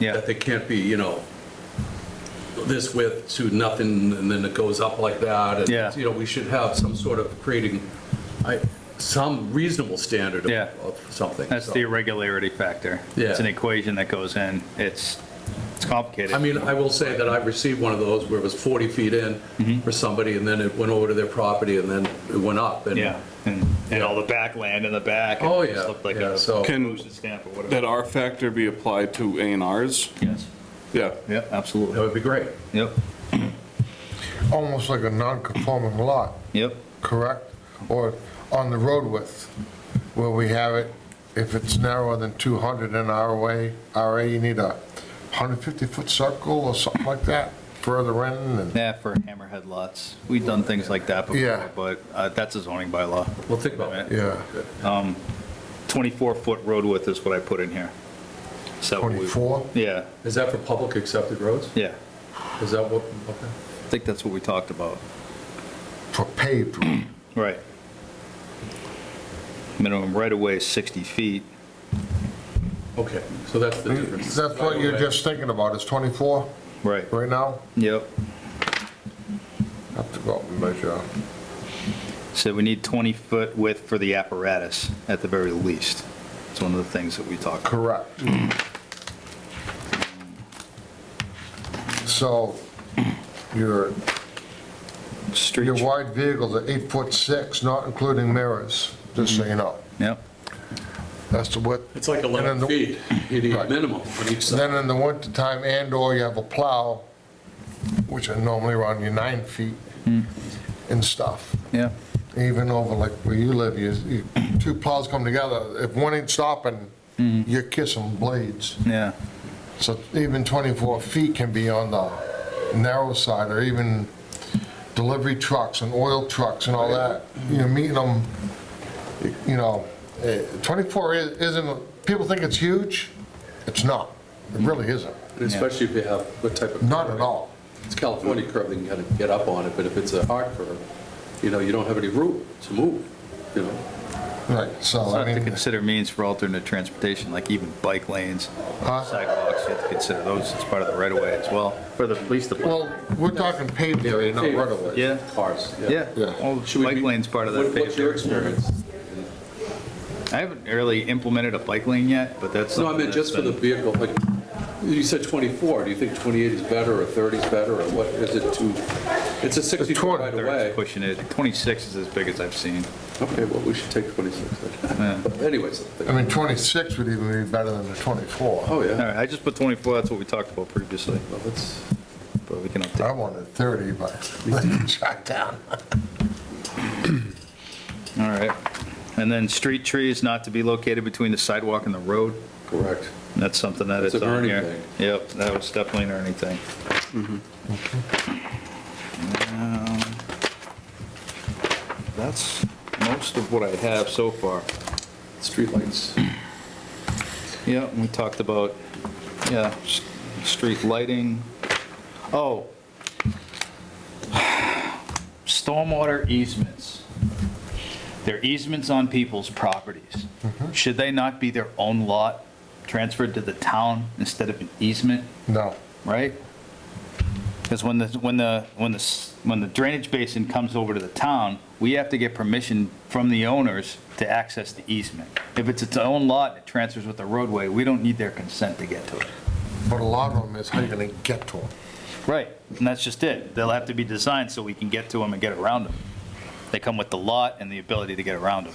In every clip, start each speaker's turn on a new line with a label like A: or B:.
A: Yeah.
B: That they can't be, you know, this width to nothing, and then it goes up like that. and,
A: Yeah.
B: You know, we should have some sort of creating, I, some reasonable standard of-
A: Yeah.
B: of something.
A: That's
B: so.
A: the irregularity factor. It's an
B: Yeah.
A: equation that goes in. It's, it's complicated.
B: I mean, I will say that I received one of those where it was 40 feet in
A: Mm-hmm.
B: for somebody, and then it went over to their property, and then it went up. and-
A: Yeah, and, and all the backland in the back. and
B: Oh,
A: it just
B: yeah,
A: looked Like
B: yeah,
A: a
B: so-
C: Can-
A: postage stamp or whatever.
C: That R factor be applied to A and Rs?
A: Yes,
C: Yeah.
A: yep,
B: That
A: absolutely.
B: would be great.
A: Yep,
D: almost like a non-conforming lot,
A: yep,
D: correct? Or on the road width, where we have it, if it's narrower than 200 in our way, RA, you need a 150-foot circle or something like that, further in, and
A: yeah, for hammerhead lots. We've done things like that before,
D: Yeah.
A: but uh, that's a zoning bylaw.
B: Well, think about that.
D: yeah,
A: 24-foot road width is what I put in here. So we-
D: 24?
A: Yeah,
B: Is that for public accepted roads?
A: yeah,
B: Is that what, okay.
A: I think that's what we talked about.
D: for paved road.
A: Right. Minimum right away is 60 feet.
B: Okay, so that's the difference.
D: That's what you're just thinking about, is 24
A: Right.
D: right now?
A: Yep.
D: Have to go up and measure.
A: So we need 20-foot width for the apparatus, at the very least. It's one of the things that we talk about.
D: Correct. So your, your
A: Street.
D: wide vehicles are eight foot six, not including mirrors, just so you know.
A: Yep,
D: That's the width.
B: It's like
D: And
B: 11
D: then the-
B: feet, you need
D: Right.
B: minimum on each side.
D: Then in the wintertime and/or you have a plow, which are normally around your nine feet and stuff.
A: yeah,
D: Even over like where you live, you, you- two plows come together, if one ain't stopping, you're kissing blades.
A: yeah,
D: So even 24 feet can be on the narrow side, or even delivery trucks and oil trucks and all that. You're meeting them, you know, eh, 24 i- isn't, people think it's huge, it's not. It really isn't,
B: And Especially if you have what type of.
D: not at all.
B: It's California curve, then you gotta get up on it, but if it's a hard curve, you know, you don't have any room to move, you know?
D: Right, so
B: Oh,
A: It's
D: I
A: not to
D: mean,
A: consider means for alternate transportation, like even bike lanes, sidewalks, you have to consider those as part of the right-of-way as well. For the police
D: well, we're talking paved area, not right of way.
A: Yeah.
B: Cars, yeah.
A: Yeah,
D: Yeah.
A: all
B: Should we
A: bike
B: be-
A: lanes part of
B: What-
A: that.
B: What's your
A: paved area.
B: experience?
A: I haven't really implemented a bike lane yet, but that's.
B: No, I
A: something
B: meant
A: that's
B: just for the
A: been-
B: vehicle, like, you said 24, do you think 28 is better, or 30 is better, or what, is it too, it's a 60 foot
D: 20.
B: right
A: they're
B: away.
A: Pushing it, 26 is as big as I've seen.
B: Okay, well, we should take 26
A: Yeah.
B: then. But Anyways,
D: I mean, 26 would even be better than the 24.
B: oh,
A: All
B: yeah,
A: right, I just put 24, that's what we talked about previously,
B: well, that's,
A: but we can
D: I
A: update.
D: wanted 30, but I shot down.
A: All right. And then street trees not to be located between the sidewalk and the road,
B: correct.
A: that's something that
B: That's
A: is
B: an
A: on
B: Ernie
A: here.
B: thing.
A: Yep, that was definitely an Ernie thing. Um, That's most of what I have so far.
B: Streetlights,
A: Yeah, we talked about, yeah, s- street lighting. Oh. Stormwater easements. They're easements on people's properties. Should they not be their own lot transferred to the town instead of an easement,
D: No,
A: right? Because when the, when the, when the, s- when the drainage basin comes over to the town, we have to get permission from the owners to access the easement. If it's its own lot and it transfers with the roadway, we don't need their consent to get to it.
D: but a lot of them is how you gonna get to them.
A: Right, and that's just it. They'll have to be designed so we can get to them and get around them. They come with the lot and the ability to get around them.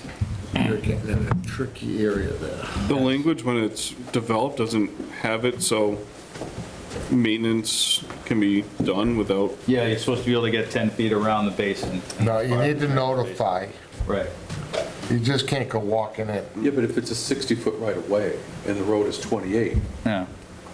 D: You're getting in a tricky area there.
C: The language, when it's developed, doesn't have it, so maintenance can be done without,
A: Yeah, you're supposed to be able to get 10 feet around the basin.
D: No, you need to notify.
A: Right.
D: You just can't go walking in.
B: yeah, but if it's a 60 foot right away, and the road is 28,
A: Yeah.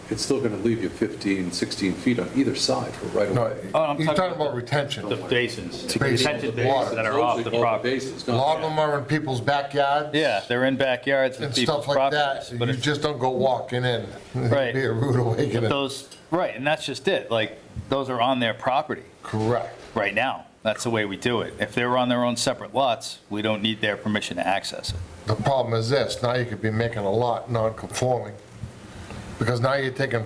B: it's still gonna leave you 15, 16 feet on either side for right
D: No,
B: away.
D: he's
A: Oh, I'm
D: talking
A: talking
D: about retention.
A: The basins,
D: Basins.
A: detention basins that are off the
B: Those are
A: property.
B: bases,
D: A
B: not-
D: lot of them are in people's backyards.
A: Yeah, they're in backyards
D: And
A: with
D: stuff
A: people's
D: like that.
A: properties.
D: You
A: But if
D: just don't go walking in.
A: Right.
D: It'd Be a rude
A: but
D: awakening.
A: those, right, and that's just it, like, those are on their property
D: Correct.
A: right now. That's the way we do it. If they're on their own separate lots, we don't need their permission to access it.
D: The problem is this, now you could be making a lot non-conforming. Because now you're taking